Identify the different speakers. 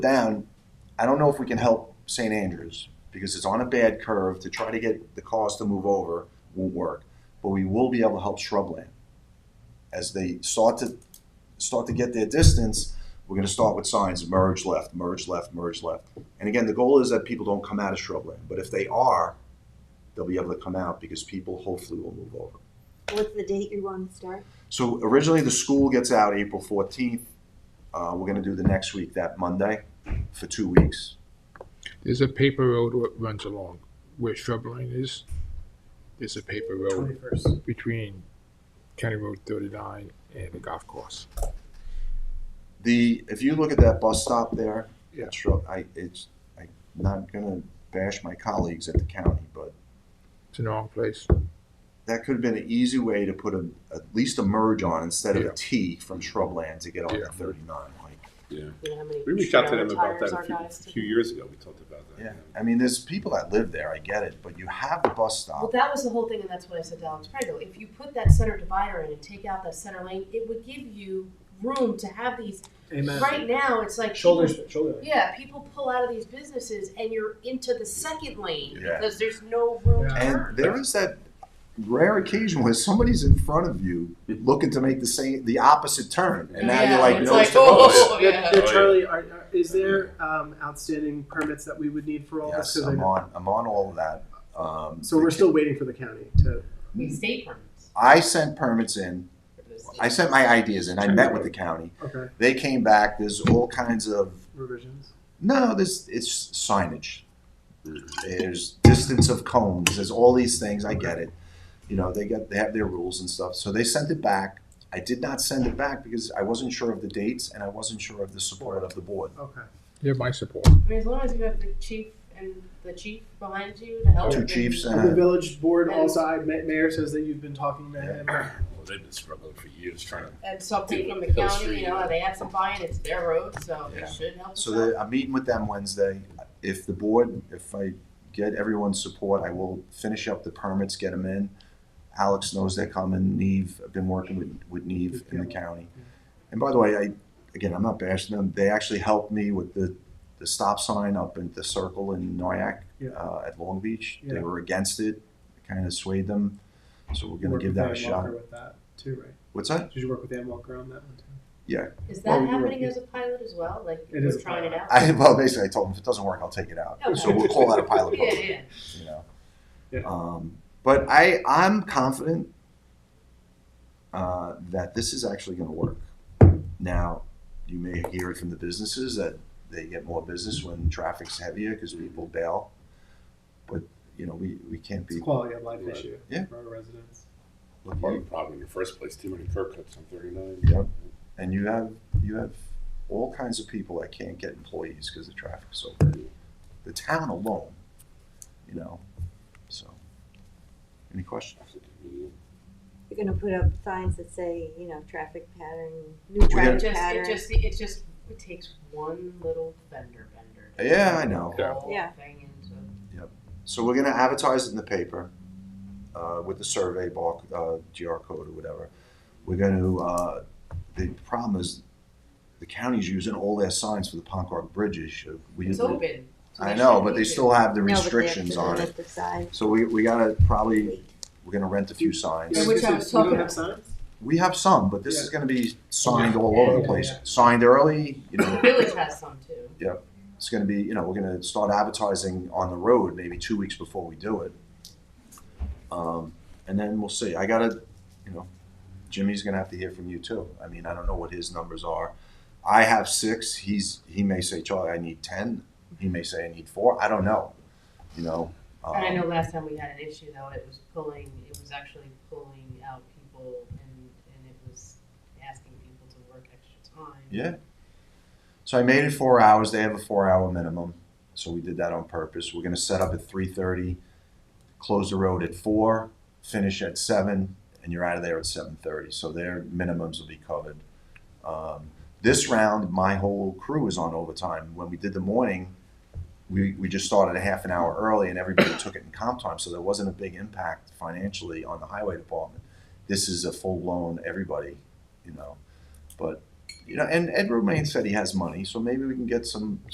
Speaker 1: down, I don't know if we can help St. Andrews because it's on a bad curve to try to get the cars to move over won't work. But we will be able to help shrubland. As they start to start to get their distance, we're gonna start with signs, merge left, merge left, merge left. And again, the goal is that people don't come out of shrubland, but if they are, they'll be able to come out because people hopefully will move over.
Speaker 2: What's the date you want to start?
Speaker 1: So originally, the school gets out April fourteenth. Uh, we're gonna do the next week, that Monday, for two weeks.
Speaker 3: There's a paper road that runs along where shrubline is. There's a paper road
Speaker 4: Twenty-first.
Speaker 3: between County Road thirty-nine and the golf course.
Speaker 1: The, if you look at that bus stop there,
Speaker 3: Yeah.
Speaker 1: it's, real- I, it's, I'm not gonna bash my colleagues at the county, but
Speaker 3: It's an wrong place.
Speaker 1: that could have been an easy way to put a, at least a merge on instead of
Speaker 3: Yeah.
Speaker 1: a T from shrubland to get on
Speaker 3: Yeah.
Speaker 1: to thirty-nine, like.
Speaker 5: Yeah,
Speaker 2: You know how many
Speaker 5: we reached out to
Speaker 2: trail
Speaker 5: them about
Speaker 2: tires
Speaker 5: that
Speaker 2: our
Speaker 5: a
Speaker 2: guys
Speaker 5: few,
Speaker 2: took?
Speaker 5: few years ago. We talked about that.
Speaker 1: Yeah, I mean, there's people that live there, I get it, but you have the bus
Speaker 6: Well,
Speaker 1: stop.
Speaker 6: that was the whole thing, and that's what I said to Alex Prego. If you put that center divider in and take out that center lane, it would give you room to have these.
Speaker 4: Amen.
Speaker 6: Right now, it's like
Speaker 4: Shoulders,
Speaker 6: people-
Speaker 4: shoulder.
Speaker 6: Yeah, people pull out of these businesses, and you're into the second lane
Speaker 1: Yeah.
Speaker 6: because there's no room.
Speaker 4: Yeah.
Speaker 6: to
Speaker 1: And
Speaker 6: turn.
Speaker 1: there is that rare occasion where somebody's in front of you looking to make the same, the opposite turn, and now
Speaker 6: Yeah,
Speaker 1: you're like,
Speaker 6: it's
Speaker 1: no, it's the
Speaker 6: like,
Speaker 1: bus.
Speaker 6: oh, yeah.
Speaker 4: Yeah,
Speaker 5: Oh, yeah.
Speaker 4: Charlie, are, are, is there um, outstanding permits that we would need for all
Speaker 1: Yes,
Speaker 4: this? 'Cause I
Speaker 1: I'm
Speaker 4: know-
Speaker 1: on, I'm on all of that. Um,
Speaker 4: so we're still waiting for the county to.
Speaker 6: We stay permits.
Speaker 1: I sent permits in,
Speaker 6: for those
Speaker 1: I sent my ideas in, I met with the county.
Speaker 4: Okay,
Speaker 1: They came back, there's all kinds of,
Speaker 4: revisions.
Speaker 1: no, this, it's signage. There's distance of cones, there's all these things, I get it. You know, they got, they have their rules and stuff, so they sent it back. I did not send it back because I wasn't sure of the dates and I wasn't sure of the support of the board.
Speaker 4: Okay.
Speaker 3: You have my support.
Speaker 6: I mean, as long as you have the chief and the chief behind you to help.
Speaker 1: Two
Speaker 6: and-
Speaker 1: chiefs
Speaker 4: And the
Speaker 1: and, a-
Speaker 4: village board also, I, ma- mayor says that you've been talking to him.
Speaker 5: Well, they've been struggling for years trying to.
Speaker 6: And something from the
Speaker 5: Hill
Speaker 6: county,
Speaker 5: Street.
Speaker 6: you know, they have some buy-in, it's their road, so
Speaker 1: Yeah.
Speaker 6: it should help us
Speaker 1: so
Speaker 6: out.
Speaker 1: the- I'm meeting with them Wednesday. If the board, if I get everyone's support, I will finish up the permits, get them in. Alex knows they're coming, Neve, I've been working with, with Neve in the county. And by the way, I, again, I'm not bashing them, they actually helped me with the, the stop sign up at the circle in Noyak,
Speaker 4: Yeah.
Speaker 1: uh, at Long Beach. They
Speaker 4: Yeah.
Speaker 1: were against it, kind of swayed them, so we're gonna
Speaker 4: Worked
Speaker 1: give
Speaker 4: with
Speaker 1: that a
Speaker 4: Ann
Speaker 1: shot.
Speaker 4: Walker With that too, right?
Speaker 1: What's that?
Speaker 4: Did you work with Ann Walker on that one too?
Speaker 6: Is
Speaker 1: Well,
Speaker 6: that
Speaker 1: we do
Speaker 6: happening
Speaker 1: have-
Speaker 6: as a pilot as well? Like
Speaker 4: It
Speaker 6: we're
Speaker 4: is a
Speaker 6: trying it
Speaker 4: pilot.
Speaker 6: out.
Speaker 1: I, well, basically, I told them, if it doesn't work, I'll take it out.
Speaker 6: Okay.
Speaker 1: So we'll call that a pilot
Speaker 6: yeah,
Speaker 1: program.
Speaker 6: yeah.
Speaker 1: you know.
Speaker 4: Yeah.
Speaker 1: Um, but I, I'm confident uh, that this is actually going to work. Now, you may hear it from the businesses that they get more business when traffic's heavier because people bail. But you know, we, we can't
Speaker 4: It's a
Speaker 1: be.
Speaker 4: quality of life
Speaker 5: Right.
Speaker 4: issue
Speaker 1: Yeah.
Speaker 4: for our residents.
Speaker 5: Part of the problem in the first place, too many curb cuts on 39.
Speaker 1: Yep. And you have you have all kinds of people that can't get employees because the traffic's so bad. The town alone, you know. So, any questions?
Speaker 2: You're gonna put up signs that say, you know, traffic pattern, new
Speaker 1: We're gonna-
Speaker 6: It
Speaker 2: traffic
Speaker 6: just, it
Speaker 2: pattern.
Speaker 6: just, it just it takes one little vendor vendor. to
Speaker 1: Yeah, I
Speaker 6: turn
Speaker 1: know.
Speaker 6: the
Speaker 3: Yeah.
Speaker 6: whole
Speaker 2: Yeah.
Speaker 6: Thing into.
Speaker 1: So we're gonna advertise it in the paper, uh, with the survey bar, uh, GR code or whatever. We're gonna, uh, the problem is, the county's using all their signs for the Poncarg bridges. Should we-
Speaker 6: It's open. so
Speaker 1: I
Speaker 6: they
Speaker 1: know,
Speaker 6: should
Speaker 1: but they
Speaker 6: use it.
Speaker 1: still have the
Speaker 2: No, but they have
Speaker 1: restrictions
Speaker 2: to
Speaker 1: on it.
Speaker 2: limit The size.
Speaker 1: So we, we gotta probably, we're gonna rent a few
Speaker 6: Yeah,
Speaker 1: signs.
Speaker 6: which I was
Speaker 4: You don't
Speaker 6: talking
Speaker 4: have
Speaker 6: about.
Speaker 4: signs?
Speaker 1: We have some, but this is gonna be signed all
Speaker 4: Yeah,
Speaker 1: over the
Speaker 4: yeah,
Speaker 1: place.
Speaker 4: yeah.
Speaker 1: Signed early, you
Speaker 6: The
Speaker 1: know,
Speaker 6: village has some too.
Speaker 1: it's gonna be, you know, we're gonna start advertising on the road maybe two weeks before we do it. Um, and then we'll see. I gotta, you know, Jimmy's gonna have to hear from you too. I mean, I don't know what his numbers are. I have six. He's he may say, Charlie, I need ten. He may say I need four. I don't know. You know. Um,
Speaker 6: And I know last time we had an issue though, it was pulling, it was actually pulling out people and, and it was asking people to work extra time.
Speaker 1: Yeah. So I made it four hours. They have a four-hour minimum, so we did that on purpose. We're gonna set up at three thirty, close the road at four, finish at seven, and you're out of there at seven thirty. So their minimums will be covered. Um, this round, my whole crew is on overtime. When we did the morning, we, we just started a half an hour early, and everybody took it in comp time, so there wasn't a big impact financially on the highway department. This is a full-blown everybody, you know, but you know, and Ed Romaine said he has money, so maybe we can get some